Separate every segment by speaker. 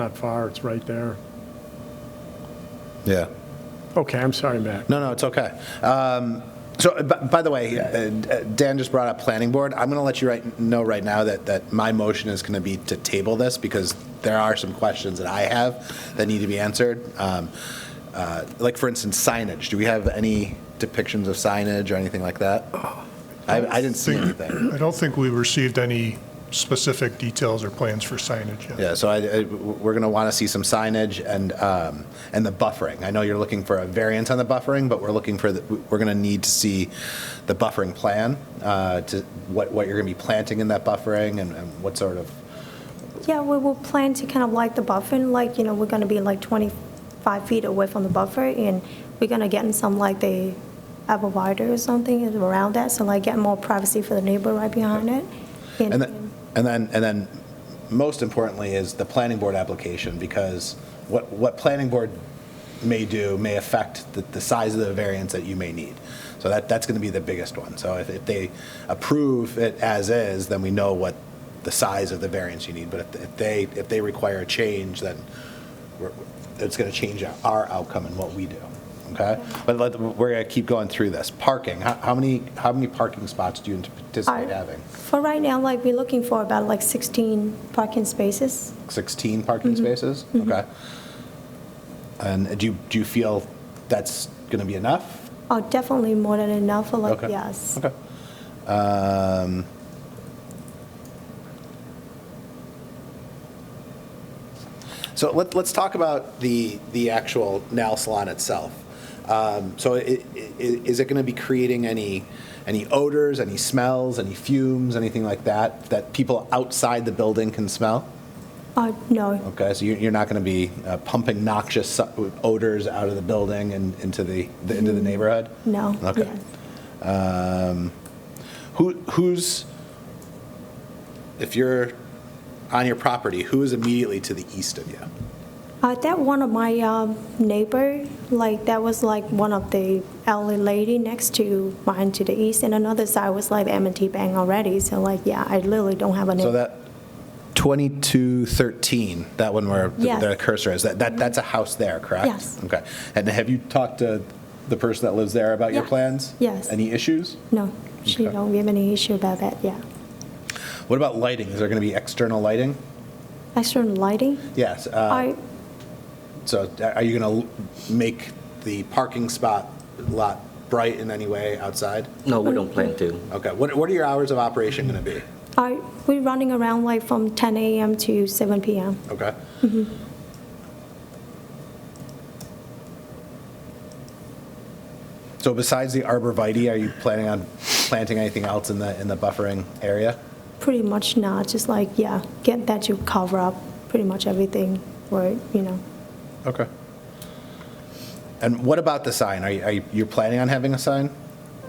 Speaker 1: Not far, it's right there.
Speaker 2: Yeah.
Speaker 1: Okay, I'm sorry, Matt.
Speaker 2: No, no, it's okay. Um, So, uh, b- by the way, uh, uh, Dan just brought up planning board. I'm going to let you right, know right now that, that my motion is going to be to table this because there are some questions that I have that need to be answered. Um, uh, Like, for instance, signage. Do we have any depictions of signage or anything like that? I, I didn't see anything.
Speaker 3: I don't think we received any specific details or plans for signage yet.
Speaker 2: Yeah, so I, I- we're going to want to see some signage and, um, and the buffering. I know you're looking for a variance on the buffering, but we're looking for, the- we're going to need to see the buffering plan, uh, to what, what you're going to be planting in that buffering and and what sort of,
Speaker 4: Yeah, we will plan to kind of like the buffer, and like, you know, we're going to be like 25 feet away from the buffer, and we're going to get in some, like, the abreviator or something is around that, so like get more privacy for the neighbor right behind it.
Speaker 2: and then, and then, and then most importantly is the planning board application, because what, what planning board may do may affect the, the size of the variance that you may need. So that, that's going to be the biggest one. So if, if they approve it as is, then we know what the size of the variance you need. But if- if they, if they require a change, then we're- it's going to change our- our outcome and what we do, okay? But let, we're going to keep going through this. Parking, how, how many, how many parking spots do you anticipate
Speaker 4: Are-
Speaker 2: having?
Speaker 4: For right now, like, we're looking for about like 16 parking spaces.
Speaker 2: 16 parking spaces? Okay. And do you, do you feel that's going to be enough?
Speaker 4: Oh, definitely more than enough for like,
Speaker 2: Okay.
Speaker 4: yes.
Speaker 2: Okay. Um, So let, let's talk about the, the actual nail salon itself. Um, So i- i- is it going to be creating any, any odors, any smells, any fumes, anything like that, that people outside the building can smell?
Speaker 4: Oh, no,
Speaker 2: Okay, so you- you're not going to be uh, pumping noxious su- odors out of the building and into the, the- into the neighborhood?
Speaker 4: no.
Speaker 2: Okay.
Speaker 4: yes.
Speaker 2: Um, Who, who's, if you're on your property, who is immediately to the east of you?
Speaker 4: Uh, that one of my um, neighbor, like that was like one of the elderly lady next to mine to the east, and another side was like M&T Bank already. So like, yeah, I literally don't have a
Speaker 2: So
Speaker 4: neighbor.
Speaker 2: that 2213, that one where the-
Speaker 4: Yes.
Speaker 2: the cursor is, that, that that's a house there, correct?
Speaker 4: Yes.
Speaker 2: Okay, and have you talked to the person that lives there about your
Speaker 4: Yeah.
Speaker 2: plans?
Speaker 4: Yes.
Speaker 2: Any issues?
Speaker 4: No, she
Speaker 2: Okay.
Speaker 4: don't give any issue about that. Yeah,
Speaker 2: What about lighting? Is there going to be external lighting?
Speaker 4: external lighting.
Speaker 2: Yes. uh,
Speaker 4: I
Speaker 2: So are you going to make the parking spot lot bright in any way outside?
Speaker 5: No, we don't plan to.
Speaker 2: Okay, what, what are your hours of operation going to be?
Speaker 4: I we're running around like from 10 a.m. to 7 p.m.
Speaker 2: Okay? So besides the arborvitae, are you planning on planting anything else in the, in the buffering area?
Speaker 4: Pretty much not. Just like yeah, get that you cover up pretty much everything, right? You know.
Speaker 2: Okay. And what about the sign? Are you, are you you're planning on having a sign?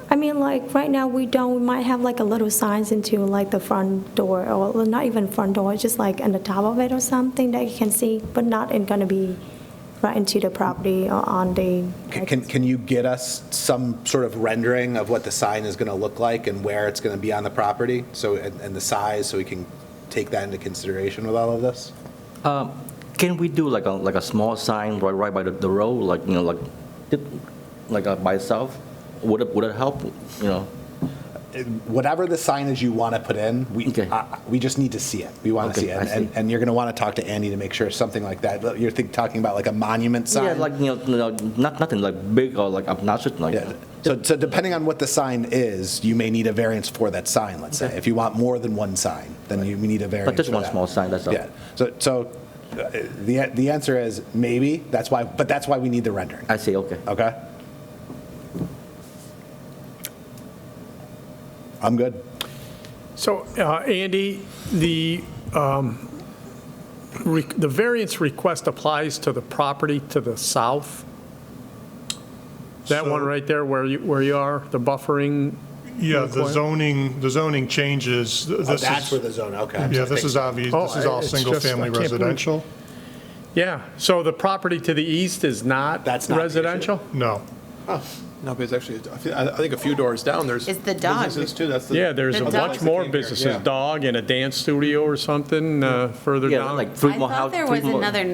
Speaker 4: I mean, like, right now, we don't, we might have like a little signs into like the front door, or well, not even front door, just like on the top of it or something that you can see, but not in gonna be right into the property or on the.
Speaker 2: C- Can, can you get us some sort of rendering of what the sign is going to look like and where it's going to be on the property? So, and, and the size, so we can take that into consideration with all of this?
Speaker 5: Can we do like a, like a small sign right, right by the, the road, like, you know, like, it- like uh, by itself? Would it, would it help, you know?
Speaker 2: Whatever the signage you want to put in, we,
Speaker 5: Okay.
Speaker 2: I- I- we just need to see it. We want to
Speaker 5: Okay,
Speaker 2: see it.
Speaker 5: I
Speaker 2: And- And,
Speaker 5: see.
Speaker 2: and you're going to want to talk to Andy to make sure something like that, but you're think, talking about like a monument sign?
Speaker 5: Yeah, like, you know, you know, not, nothing like big or like obnoxious, like,
Speaker 2: Yeah. So, so depending on what the sign is, you may need a variance for that sign, let's say. If you want more than one sign, then you we need a variance
Speaker 5: just
Speaker 2: for
Speaker 5: one
Speaker 2: that.
Speaker 5: small sign, that's all.
Speaker 2: Yeah. So, so uh, the, the answer is maybe, that's why, but that's why we need the rendering,
Speaker 5: I see, okay.
Speaker 2: okay? I'm good.
Speaker 1: So, uh, Andy, the, um, re- the variance request applies to the property to the south? That one
Speaker 3: So-
Speaker 1: right there where you, where you are, the buffering?
Speaker 3: Yeah, the
Speaker 1: Require-
Speaker 3: zoning, the zoning changes. This
Speaker 2: Oh, that's
Speaker 3: is-
Speaker 2: where the zone, okay. I'm
Speaker 3: Yeah,
Speaker 2: sorry.
Speaker 3: this is obvious,
Speaker 1: Oh,
Speaker 3: this is all
Speaker 1: it's just- I
Speaker 3: single-family
Speaker 1: can't believe-
Speaker 3: residential.
Speaker 1: Yeah, so the property to the east is not
Speaker 2: That's not the issue.
Speaker 1: residential?
Speaker 3: No.
Speaker 6: No, but it's actually, I thi- I think a few doors down, there's.
Speaker 7: It's the dog.
Speaker 6: Businesses too, that's the.
Speaker 1: Yeah, there's
Speaker 7: The
Speaker 1: a
Speaker 7: dog-
Speaker 1: much more businesses, dog and a dance studio or something uh, further
Speaker 5: Yeah,
Speaker 1: down.
Speaker 5: like three
Speaker 7: I
Speaker 5: more houses.
Speaker 7: thought there was another